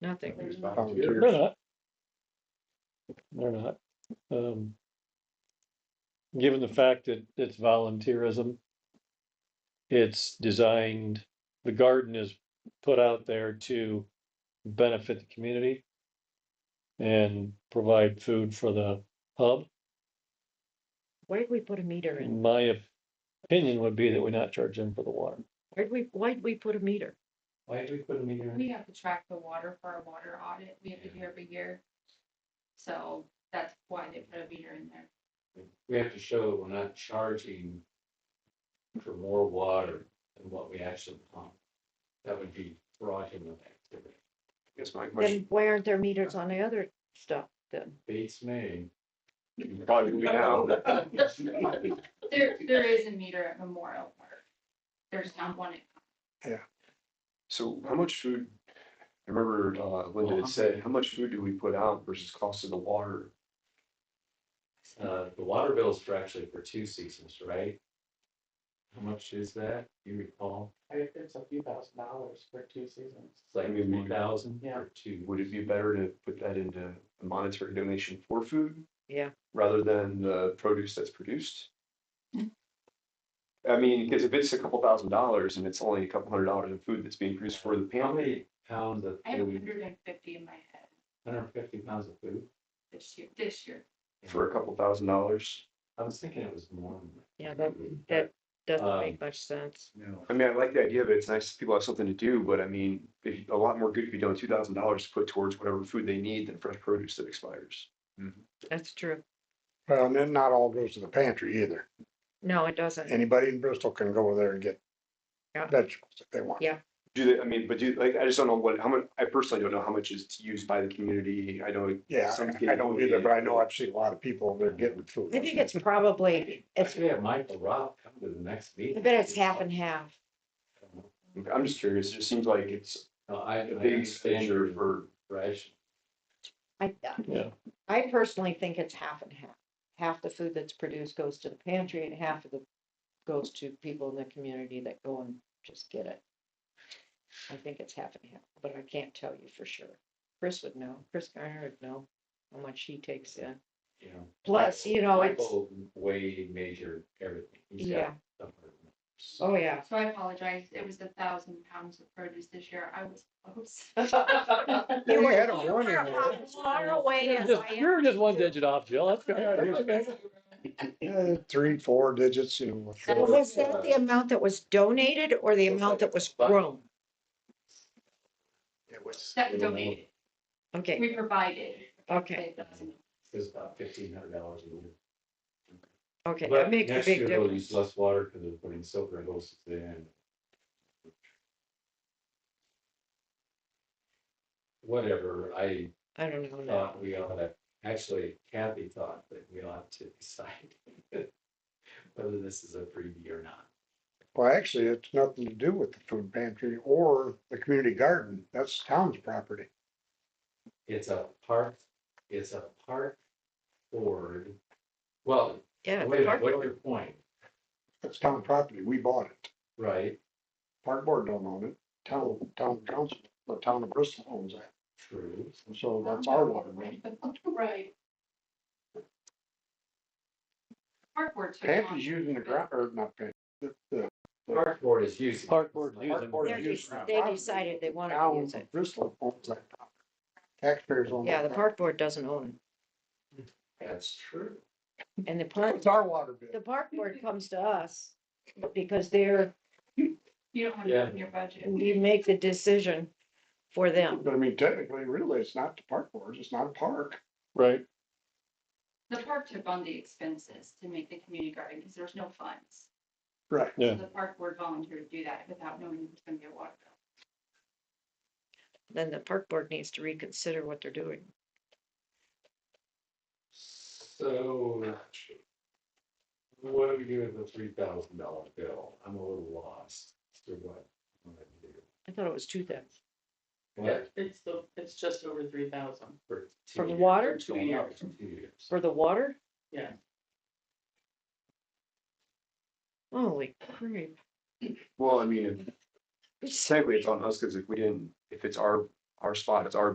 Nothing. There's They're volunteers. not. They're not. Um, Given the fact that it's volunteerism, it's designed, the garden is put out there to benefit the community and provide food for the hub. Why did we put a meter in? My opinion would be that we not charge them for the water. Why did we, why did we put a meter? Why did we put a meter We have to track the water for our water audit. We have to do every year. So that's why they put a meter in there. we have to show that we're not charging for more water than what we actually pump. That would be fraudulent activity. Guess my question, Then why aren't there meters on the other stuff then? Beats me. probably we have, There, there is a meter at Memorial Park. There's not one. at- so how much food? I remember uh, Linda had said, how much food do we put out versus cost of the water? Uh, the water bills for actually for two seasons, right? How much is that? You recall? I think it's a few thousand dollars for two seasons. It's like I mean, we- one thousand Yeah. or two. Would it be better to put that into a monetary donation for food? Yeah. Rather than the produce that's produced? I mean, because if it's a couple thousand dollars and it's only a couple hundred dollars in food that's being produced for the How pantry, many pounds of I have food, hundred and fifty in my head hundred and fifty pounds of food? this year, this year. for a couple thousand dollars. I was thinking it was more. than that. Yeah, that, that doesn't Um, make much sense. No. I mean, I like the idea of it. It's nice that people have something to do, but I mean, if, a lot more good could be done with two thousand dollars to put towards whatever food they need than fresh produce that expires. That's true. Well, and then not all goes to the pantry either. No, it doesn't. Anybody in Bristol can go there and get Yeah. vegetables if they want. Yeah. Do they, I mean, but do, like, I just don't know what, how much, I personally don't know how much is used by the community. I know. Yeah, some I I don't get- either, but I know I've seen a lot of people over there getting food. I think it's probably, it's, Actually, I might rob come to the next meeting. I bet it's half and half. I'm just curious. It just seems like it's No, I, I a big understand your expenditure for, ration. I, Yeah. I personally think it's half and half. Half the food that's produced goes to the pantry and half of the, goes to people in the community that go and just get it. I think it's half and half, but I can't tell you for sure. Chris would know, Chris Garner would know how much he takes in. you know. Plus, you know, it's, Michael Way measured everything. He's got yeah, something. oh, yeah. So I apologize. It was a thousand pounds of produce this year. I was close. Yeah, we had a warning. there. Far away as Just- I am. You're just one digit off, Jill. That's good. Eh, Three, four digits, you know. That four. Was that the amount that was donated or the amount that was grown? It was- That donated. Okay, We provided. okay, It doesn't- It's about fifteen hundred dollars a year. okay, that But makes a next big year they'll use difference. less water because they're putting silver hoses in. Whatever, I I don't know now. thought we ought to, actually Kathy thought that we ought to decide whether this is a freebie or not. Well, actually, it's nothing to do with the food pantry or the community garden. That's town's property. It's a park, it's a park board. Well, Yeah. wait a minute, park what's board. your point, It's town property. We bought it. right? Park board don't own it. Town, town council, the town of Bristol owns that. True. So that's our water main. Right. Park board. took it on. Pantry's using the ground, or not pantry, the, the Park board is using. Park board Park using. board They're use just- that They property. decided they wanted to town use it. of Bristol owns that property. Taxpayers own Yeah, the that. park board doesn't own That's true. it. And the property. park, It's our water bill. the park board comes to us because they're, You don't have Yeah. it in your budget. we make the decision for them. But I mean, technically, really, it's not the park boards, it's not a park. Right. The park took on the expenses to make the community garden because there's no funds. Right. Yeah. So The park board volunteered to do that without knowing it was gonna be a water bill. Then the park board needs to reconsider what they're doing. So. What do we do with the three thousand dollar bill? I'm a little lost. So what? what do I do? I thought it was two thousand. What? It's the, it's just over three thousand. For two For the years, water? for Two years, two years. For the water? Yeah. Holy crap. well, I mean, technically it's on us because if we didn't, if it's our, our spot, it's our